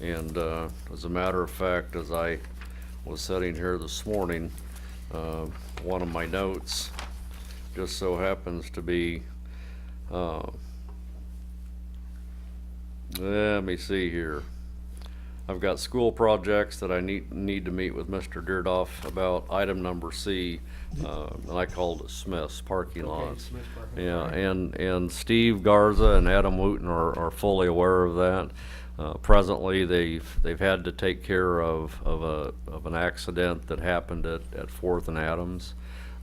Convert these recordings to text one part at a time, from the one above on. And uh, as a matter of fact, as I was sitting here this morning, uh, one of my notes just so happens to be, uh, let me see here. I've got school projects that I need, need to meet with Mr. Dierdorf about. Item number C, uh, and I called it Smith's parking lots. Smith's parking Yeah, and, and Steve Garza and Adam Wooten are, are fully aware of that. Uh, presently, they've, they've had to take care of, of a, of an accident that happened at, at Fourth and Adams.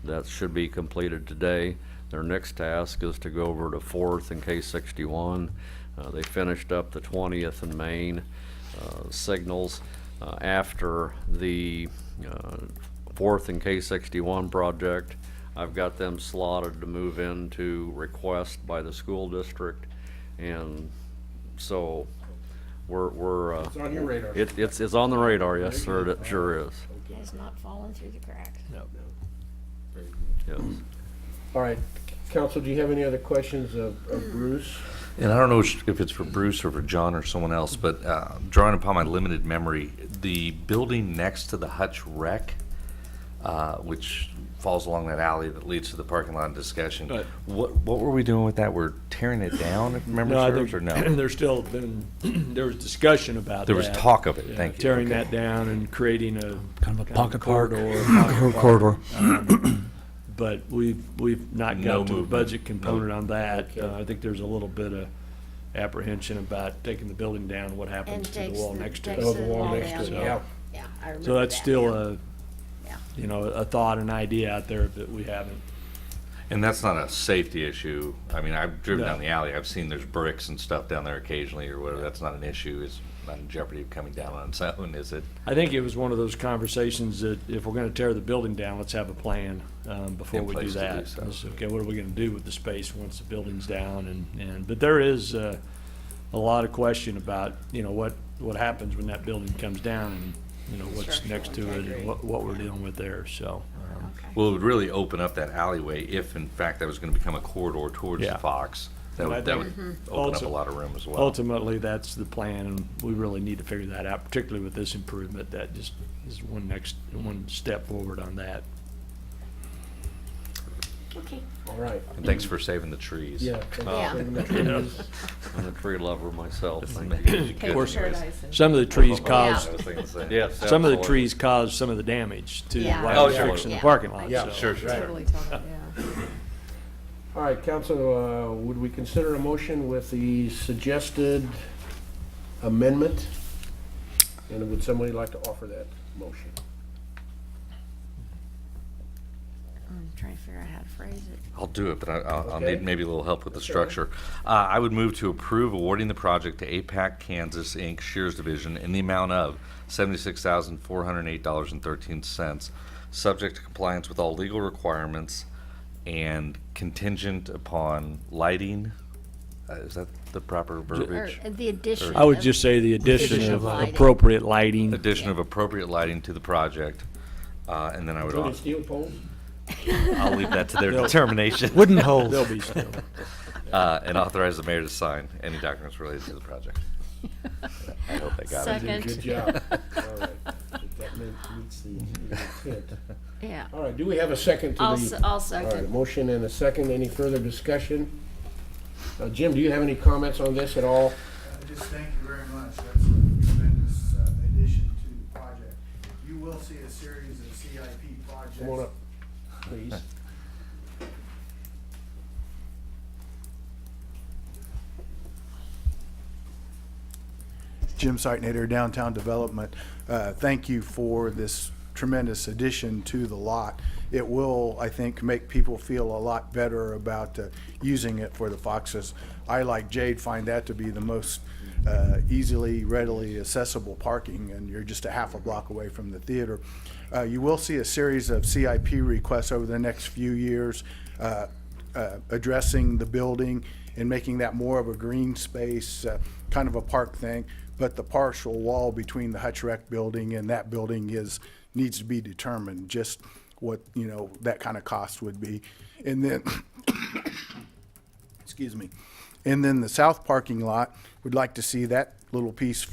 That should be completed today. Their next task is to go over to Fourth and K sixty-one. Uh, they finished up the twentieth and Main, uh, signals, uh, after the, uh, Fourth and K sixty-one project. I've got them slotted to move into request by the school district, and so we're, we're. uh, It's on your radar. It, it's, it's on the radar, yes, sir, it sure is, Has not fallen through the cracks. yes. All right, council, do you have any other questions of of Bruce? And I don't know sh- if it's for Bruce or for John or someone else, but uh, drawing upon my limited memory, the building next to the Hutch Rec, uh, which falls along that alley that leads to the parking lot discussion, Right. what, what were we doing with that? We're tearing it down, if memory No, I serves, or think no? There's still been, there was discussion about that. There was talk of it, Yeah, thank you, Tearing okay. that down and creating a. Kind of a pocket park. Corridor. pocket park. corridor. Um, But we've, we've not No got to the movement. budget component on that. Uh, I think there's a little bit of apprehension about taking the building down, what And happens to the takes wall the, next takes to the it. Oh, the wall wall next down, to it, yeah. yeah. Yeah, I remember that. So that's still yeah. a, Yeah. you know, a thought, an idea out there that we haven't. And that's not a safety issue. I mean, I've driven No. down the alley, I've seen there's bricks and stuff down there occasionally or whatever. That's not an issue, it's not in jeopardy of coming down on its own, is it? I think it was one of those conversations that if we're gonna tear the building down, let's have a plan, um, before In we do place to do that. so. Let's- Okay, what are we gonna do with the space once the building's down and, and, but there is, uh, a lot of question about, you know, what, what happens when that building comes down and, you know, what's Structural next to it and integrity. what, what we're dealing with there, so. um, Okay. Well, it would really open up that alleyway if, in fact, that was going to become a corridor towards Yeah. the Fox. That And I would, that would think open up a ulti- lot of room as well. Ultimately, that's the plan and we really need to figure that out, particularly with this improvement, that just is one next, one step forward on that. Okay, All right, And thanks for saving the trees. Um, yeah. Yeah. thank You know, you. I'm a tree lover myself, It's thank you. amazing. Goodness gracious. Some of the trees caused I was thinking the same. Yes, Some of the absolutely. trees caused some of the damage to Yeah. why Oh, we're sure. fixing the Yeah. parking lot, Yeah, so. Sure, sure. Totally tell them, yeah. All right, council, uh, would we consider a motion with the suggested amendment? And would somebody like to offer that motion? I'm trying to figure out how to phrase it. I'll do it, but I- I'll, I'll Okay. need maybe a little help with the structure. Uh, I would move to approve awarding the project to APAC Kansas Inc. Shears Division in the amount of seventy-six thousand, four hundred and eight dollars and thirteen cents, subject to compliance with all legal requirements and contingent upon lighting. Uh, Is that the proper verbiage? Or uh, the addition. I would of- just say the addition Addition of of lighting. appropriate lighting. Addition of appropriate lighting to the project, uh, and then I would, Including al- steel poles? I'll leave that to their determination. Wooden holes. They'll be still. Uh, and authorize the mayor to sign any documents related to the project. I hope I got it. Good job. All right. If That meant meets the intent. Yeah, All right, do we have a second to the? I'll, se- I'll All right, a second. motion and a second. Any further discussion? Uh, Jim, do you have any comments on this at all? I just thank you very much. That's a tremendous uh, addition to the project. You will see a series of CIP projects. Come on up, please. Jim Sightnader, Downtown Development. Uh, Thank you for this tremendous addition to the lot. It will, I think, make people feel a lot better about uh, using it for the Foxes. I, like Jade, find that to be the most uh, easily, readily accessible parking, and you're just a half a block away from the theater. Uh, You will see a series of CIP requests over the next few years. uh, uh, addressing the building and making that more of a green space, uh, kind of a park thing. But the partial wall between the Hutch Rec building and that building is, needs to be determined, just what, you know, that kind of cost would be. And then, excuse me. And then the south parking lot, we'd like to see that little piece